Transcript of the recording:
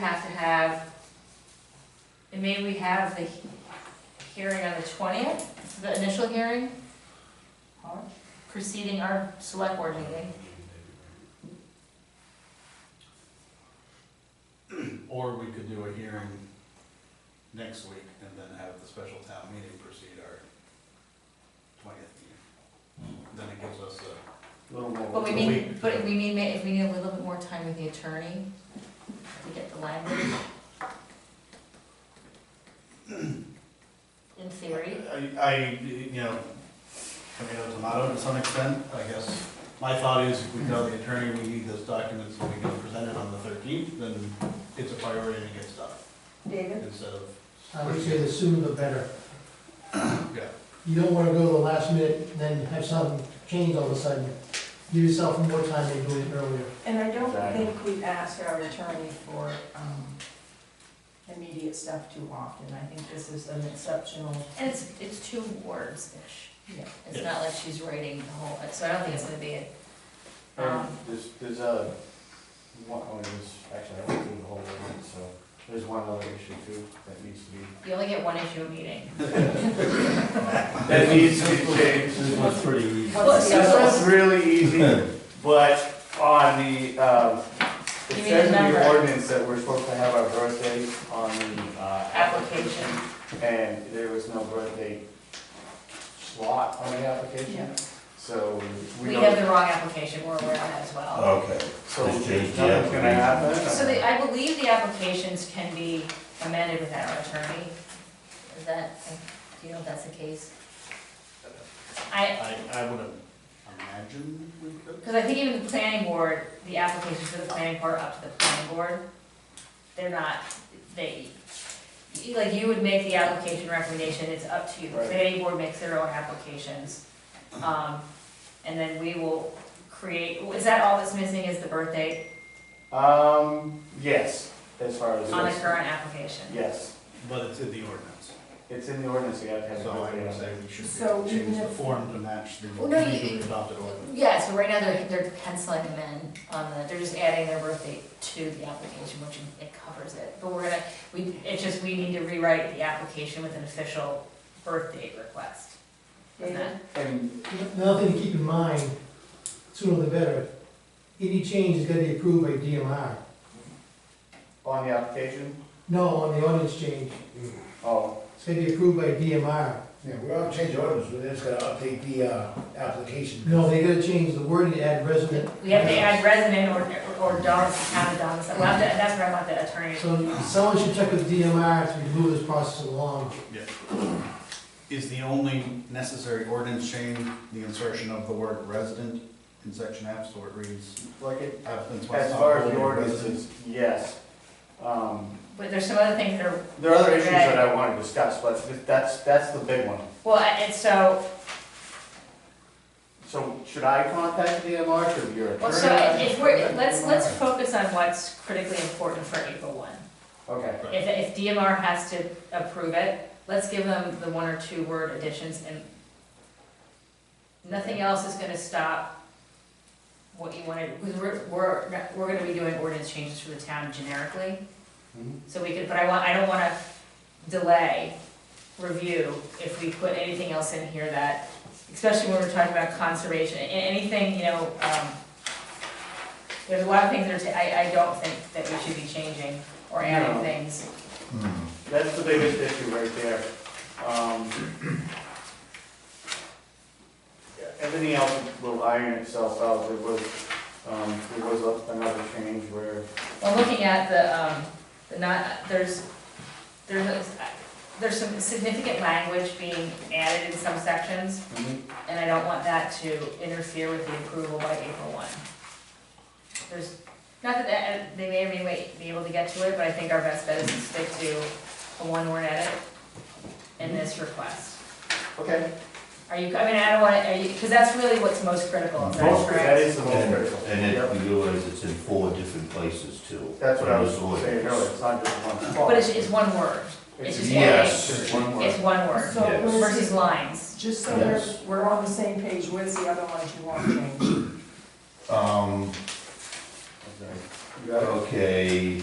have to have, and maybe we have the he- hearing on the twentieth, the initial hearing? Preceding our select board meeting. Or we could do a hearing next week and then have the special town meeting proceed our twentieth meeting. Then it gives us a, But we need, but we need, ma- if we need a little bit more time with the attorney to get the language. In theory, I, I, you know, tomato, tomato to some extent, I guess. My thought is if we tell the attorney we need this document so we can present it on the thirteenth, then it's a priority and it gets done David? instead of, I would Uh, say the sooner the better. yeah. You don't wanna go to the last minute and then have something change all of a sudden. Give yourself more time than doing it earlier. And I don't Exactly. think we ask our attorney for um, immediate stuff too often. I think this is an exceptional, and it's, it's two words-ish. Yeah. It's not like she's writing the whole, so I don't think it's gonna be, And Um, there's, there's a, one, oh, there's, actually, I went through the whole thing, so there's one other issue too that needs to be. you only get one issue a meeting. That needs to be changed. This was pretty easy. What's the other This was really easy, but on the, um, You it mean says in the number? the ordinance that we're supposed to have our birthday on the, uh. Application. And there was no birthday slot on the application, Yeah. so we We have don't, the wrong application, we're aware of that as well. Okay, so Let's nothing's change the gonna happen. So the, I believe the applications can be amended without our attorney. Is that, do you know if that's the case? I, I, I would imagine we could. because I think even the planning board, the applications for the planning board are up to the planning board. They're not, they, you- like you would make the application recommendation, it's up to you. The Right. planning board makes their own applications. Um, and then we will create, is that all that's missing is the birth date? Um, yes, as far as. On the current application. Yes, But it's in the ordinance, it's in the ordinance, you have to have. it so I would written. say we should be So able to change even the if- form to match the Well, no, you- legally adopted ordinance. Yeah, so right now they're, they're penciling them in on the, they're just adding their birth date to the application, which it covers it. But we're gonna, we, it's just, we need to rewrite the application with an official birth date request. Isn't David? that- And, Another thing to keep in mind, sooner the better, any change is gonna be approved by DMR. on the application, No, on the ordinance change, oh, it's gonna be approved by DMR. Yeah, we're gonna change the ordinance, we're just gonna update the, uh, application. No, they gotta change the wording to add resident. We have to add resident or, or domicile, town of domicile, We'll have to- that's where I want the attorney. So someone should check with DMR to move this process along. Yeah. Is the only necessary ordinance change the insertion of the word resident in section F, so it reads like it, applicants must as not far as hold the a ordinance residence. is, yes. Um, But there's some other things that are, there are other issues that I want to discuss, but th- that's, that's the big one. well, and so, So should I contact DMR, should your attorney? well, so if we're, let's, let's focus on what's critically important for April one. Okay, If, if DMR has to approve it, let's give them the one or two word additions and nothing else is gonna stop what you wanna, because we're, we're, we're gonna be doing ordinance changes for the town generically. Mhm. So we could, but I want, I don't wanna delay review if we put anything else in here that, especially when we're talking about conservation, a- anything, you know, um, there's a lot of things that are, ta- I, I don't think that we should be changing or adding No. things. that's the biggest issue right there. Um, Everything else will iron itself out, there was, um, there was another change where Well, looking at the, um, the not, there's, there's, a- there's some significant language being added in some sections, Mm-hmm. and I don't want that to interfere with the approval by April one. There's, not that, that- they may or may wait- be able to get to it, but I think our best bet is to stick to a one-word edit in this request. Okay. Are you, I mean, I don't want, to. are you, because that's really what's most critical, is that Most, correct? that is the most And critical. and Yep. it, you realize it's in four different places too. That's what I was in this saying ordinance. earlier, it's not just one spot. But it's, it's one word, it's just, Yes. one- Just one it's word. one word So Yes. where's versus the- lines. just so we're, Yes. we're on the same page, where's the other ones you want changed? Um, You got it? okay,